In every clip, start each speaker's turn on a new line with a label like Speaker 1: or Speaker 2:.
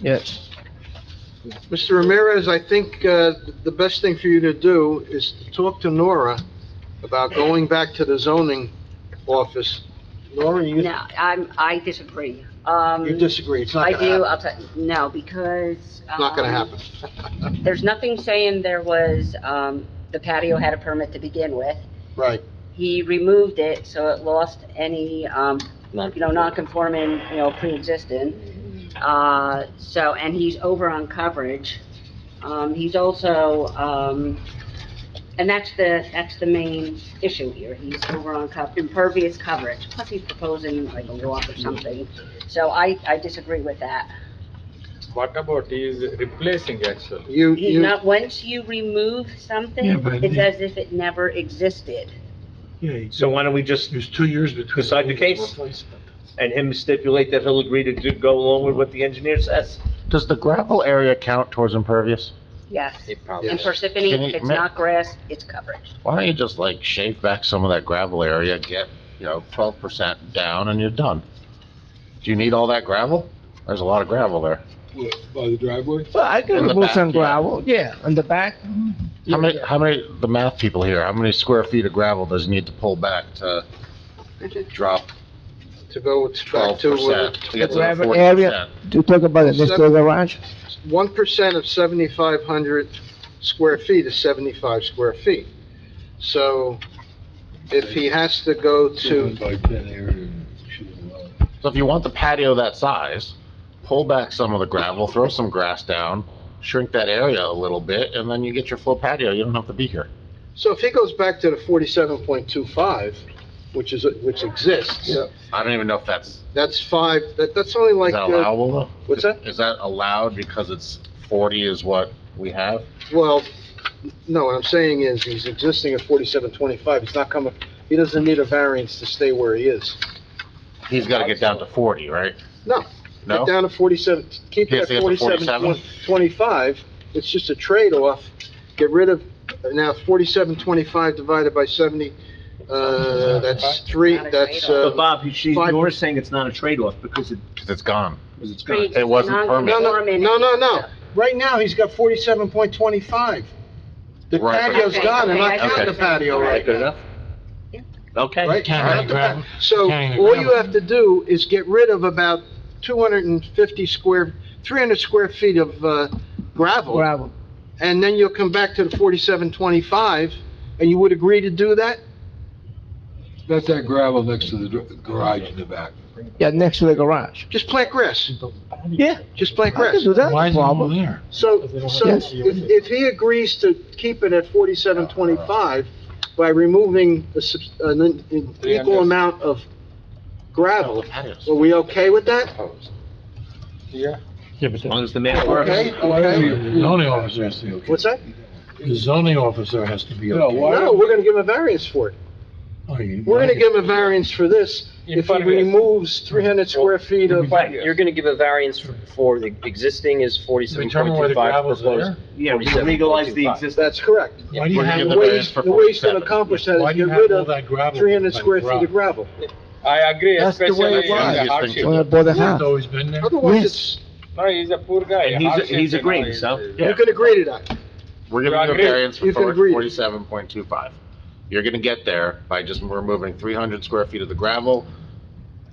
Speaker 1: Yes.
Speaker 2: Mr. Ramirez, I think uh, the best thing for you to do is to talk to Nora about going back to the zoning office. Nora, you
Speaker 3: No, I'm, I disagree. Um,
Speaker 2: you disagree, it's not
Speaker 3: I
Speaker 2: gonna
Speaker 3: do,
Speaker 2: happen.
Speaker 3: I'll tell, no, because.
Speaker 2: It's not gonna
Speaker 3: um,
Speaker 2: happen.
Speaker 3: There's nothing saying there was, um, the patio had a permit to begin with.
Speaker 2: Right,
Speaker 3: He removed it, so it lost any, um, you know, non-conforming, you know, pre-existing. Uh, so, and he's over on coverage. Um, he's also, um, and that's the, that's the main issue here. He's over on co- impervious coverage, plus he's proposing like a walk or something. So I, I disagree with that.
Speaker 4: What about he is replacing actually?
Speaker 2: you,
Speaker 3: He,
Speaker 2: you,
Speaker 3: not, once you remove something,
Speaker 1: Yeah, but
Speaker 3: it's
Speaker 1: the-
Speaker 3: as if it never existed.
Speaker 1: Yeah,
Speaker 5: So why don't we just
Speaker 1: there's two years between.
Speaker 5: Decide the case. and him stipulate that he'll agree to do, go along with what the engineer says.
Speaker 6: Does the gravel area count towards impervious?
Speaker 3: Yes.
Speaker 4: He
Speaker 3: In
Speaker 4: probably.
Speaker 2: Yes.
Speaker 3: Parsippany,
Speaker 6: Can you
Speaker 3: if it's
Speaker 6: ma-
Speaker 3: not grass, it's coverage.
Speaker 6: Why don't you just like shave back some of that gravel area, get, you know, twelve percent down and you're done? Do you need all that gravel? There's a lot of gravel there.
Speaker 7: By the driveway?
Speaker 1: Well, I can
Speaker 6: In the
Speaker 1: remove
Speaker 6: back,
Speaker 1: some
Speaker 6: yeah.
Speaker 1: gravel, yeah, on the back.
Speaker 6: How many, how many, the math people here, how many square feet of gravel does it need to pull back to drop
Speaker 2: to go with- back
Speaker 6: twelve
Speaker 2: to uh,
Speaker 6: percent? To get to the
Speaker 1: Gravel
Speaker 6: 40%?
Speaker 1: area. Do you talk about it next to the garage?
Speaker 2: 1% of 7,500 square feet is 75 square feet. So if he has to go to,
Speaker 7: By ten area, should allow.
Speaker 6: So if you want the patio that size, pull back some of the gravel, throw some grass down, shrink that area a little bit, and then you get your full patio. You don't have to be here.
Speaker 2: so if he goes back to the 47.25, which is, which exists,
Speaker 6: I don't even know if that's,
Speaker 2: that's five, that, that's only
Speaker 6: is
Speaker 2: like,
Speaker 6: that
Speaker 2: uh,
Speaker 6: allowable though?
Speaker 2: what's that?
Speaker 6: Is that allowed because it's forty is what we have?
Speaker 2: Well, no, what I'm saying is, he's existing at forty-seven twenty-five, he's not coming, he doesn't need a variance to stay where he is.
Speaker 6: He's gotta get down to forty, right?
Speaker 2: No.
Speaker 6: No?
Speaker 2: Get down to forty-seven, keep
Speaker 6: He has
Speaker 2: it
Speaker 6: to
Speaker 2: at
Speaker 6: get to
Speaker 2: forty-seven
Speaker 6: 47?
Speaker 2: twenty-five, it's just a trade-off, get rid of, now forty-seven twenty-five divided by seventy, uh, that's three,
Speaker 3: Not a
Speaker 2: that's,
Speaker 3: trade-off.
Speaker 5: But
Speaker 2: uh,
Speaker 5: Bob, she's,
Speaker 2: five-
Speaker 5: you're saying it's not a trade-off because it,
Speaker 6: Cause it's gone.
Speaker 5: because it's gone.
Speaker 3: Pre-
Speaker 6: It wasn't permanent.
Speaker 2: no, no,
Speaker 3: non-conforming.
Speaker 2: no, no, no. Right now, he's got forty-seven point twenty-five. The
Speaker 6: Right, but-
Speaker 2: patio's gone, and I
Speaker 3: Okay,
Speaker 2: counted the
Speaker 3: okay.
Speaker 2: patio right
Speaker 5: Good enough?
Speaker 3: Yeah.
Speaker 5: Okay.
Speaker 2: Right?
Speaker 1: Counting the gravel.
Speaker 2: So
Speaker 1: Counting the
Speaker 2: all you
Speaker 1: gravel.
Speaker 2: have to do is get rid of about 250 square, 300 square feet of uh, gravel,
Speaker 1: Oh. Gravel.
Speaker 2: and then you'll come back to the 4725, and you would agree to do that?
Speaker 7: That's that gravel next to the dr- garage in the back.
Speaker 1: Yeah, next to the garage.
Speaker 2: Just plant grass,
Speaker 1: Yeah,
Speaker 2: just plant
Speaker 1: I
Speaker 2: grass.
Speaker 1: can do that.
Speaker 8: Why is it
Speaker 1: Problem.
Speaker 8: over there?
Speaker 2: So, so
Speaker 1: Yes.
Speaker 2: if if he agrees to keep it at 4725 by removing a subs- an in- an equal
Speaker 4: 300.
Speaker 2: amount of gravel,
Speaker 6: Patios.
Speaker 2: are we okay with that?
Speaker 4: Yeah.
Speaker 8: Yeah, but
Speaker 5: As
Speaker 8: the
Speaker 5: long as the math
Speaker 2: Okay,
Speaker 5: works.
Speaker 2: okay.
Speaker 8: zoning officer has to,
Speaker 2: What's that?
Speaker 8: the zoning officer has to be
Speaker 7: No,
Speaker 8: okay.
Speaker 7: why-
Speaker 2: No, we're gonna give him a variance for it.
Speaker 8: Oh, you-
Speaker 2: We're gonna give him a variance for this, if he
Speaker 4: Impervious.
Speaker 2: removes three hundred square feet of,
Speaker 9: Right, you're gonna give a variance for- for the existing is forty-seven
Speaker 8: Determine where
Speaker 9: point two
Speaker 8: the
Speaker 9: five
Speaker 8: gravel's
Speaker 9: proposed.
Speaker 8: there.
Speaker 5: Yeah, we legalize the
Speaker 9: 47.25.
Speaker 5: existing.
Speaker 2: that's correct.
Speaker 8: Why do you
Speaker 6: We're
Speaker 8: have,
Speaker 6: gonna
Speaker 2: The
Speaker 6: give
Speaker 8: all-
Speaker 2: way,
Speaker 6: variance
Speaker 2: he's-
Speaker 6: for
Speaker 2: the way he's gonna
Speaker 6: 47.
Speaker 2: accomplish that
Speaker 8: why
Speaker 2: is
Speaker 8: do you
Speaker 2: get
Speaker 8: have
Speaker 2: rid
Speaker 8: all
Speaker 2: of
Speaker 8: that gravel?
Speaker 2: three hundred
Speaker 8: by the
Speaker 2: square feet of
Speaker 8: garage?
Speaker 2: gravel.
Speaker 4: I agree,
Speaker 1: That's the way
Speaker 4: especially
Speaker 1: it
Speaker 4: in
Speaker 1: was.
Speaker 4: the hardship.
Speaker 1: When I bought the
Speaker 8: It's
Speaker 1: house.
Speaker 8: always been there.
Speaker 2: Otherwise,
Speaker 1: Yes.
Speaker 2: it's,
Speaker 4: No, he's a poor guy.
Speaker 5: And he's-
Speaker 4: hardship,
Speaker 5: he's
Speaker 4: you know,
Speaker 5: agreeing,
Speaker 4: is-
Speaker 5: so,
Speaker 4: is-
Speaker 5: yeah.
Speaker 2: you can agree to that.
Speaker 6: We're giving you a
Speaker 4: agree.
Speaker 6: variance
Speaker 2: You can
Speaker 6: for
Speaker 2: agree.
Speaker 6: forty-seven point two five. You're gonna get there by just removing three hundred square feet of the gravel,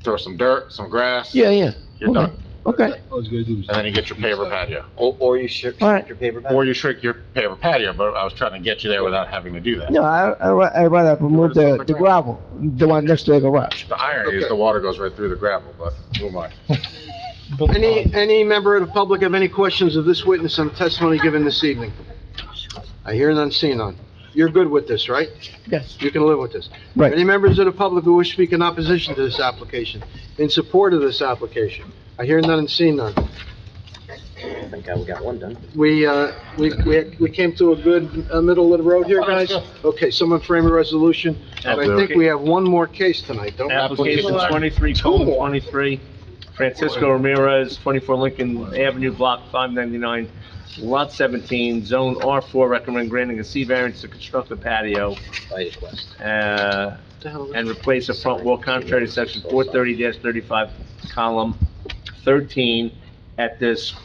Speaker 6: throw some dirt, some grass.
Speaker 1: Yeah, yeah.
Speaker 6: You're
Speaker 1: okay.
Speaker 6: done.
Speaker 1: Okay,
Speaker 7: All he's gonna do is-
Speaker 6: And then you get your paver patio.
Speaker 9: Or, or you should,
Speaker 1: All right.
Speaker 9: your paper back.
Speaker 6: Or you shrink your paver patio, but I was trying to get you there without having to do that.
Speaker 1: no, I, I ra- I rather remove the, the gravel, the one next to the garage.
Speaker 6: The irony is
Speaker 2: Okay.
Speaker 6: the water goes right through the gravel, but who am I?
Speaker 1: uh,
Speaker 8: Um,
Speaker 2: Any, any member of the public have any questions of this witness on the testimony given this evening? I hear none, see none. You're good with this, right?
Speaker 1: Yes,
Speaker 2: You can live with this.
Speaker 1: Right.
Speaker 2: Any members of the public who wish to speak in opposition to this application, in support of this application? I hear none and see none.
Speaker 9: I think I we got one done.
Speaker 2: We, uh, we, we we came to a good uh, middle of the road here, guys? Okay, someone frame a resolution, and I
Speaker 6: I'll do it.
Speaker 2: think we have one more case tonight, don't we?
Speaker 5: Application twenty-three, colon, twenty-three, Francisco Ramirez, twenty-four Lincoln Avenue, block five ninety-nine, lot seventeen, zone R four, recommend granting a C variance to construct a patio,
Speaker 9: By request.
Speaker 5: uh,
Speaker 2: What the hell?
Speaker 5: and replace a front wall contrary to section four thirty thirty-five, column thirteen, at this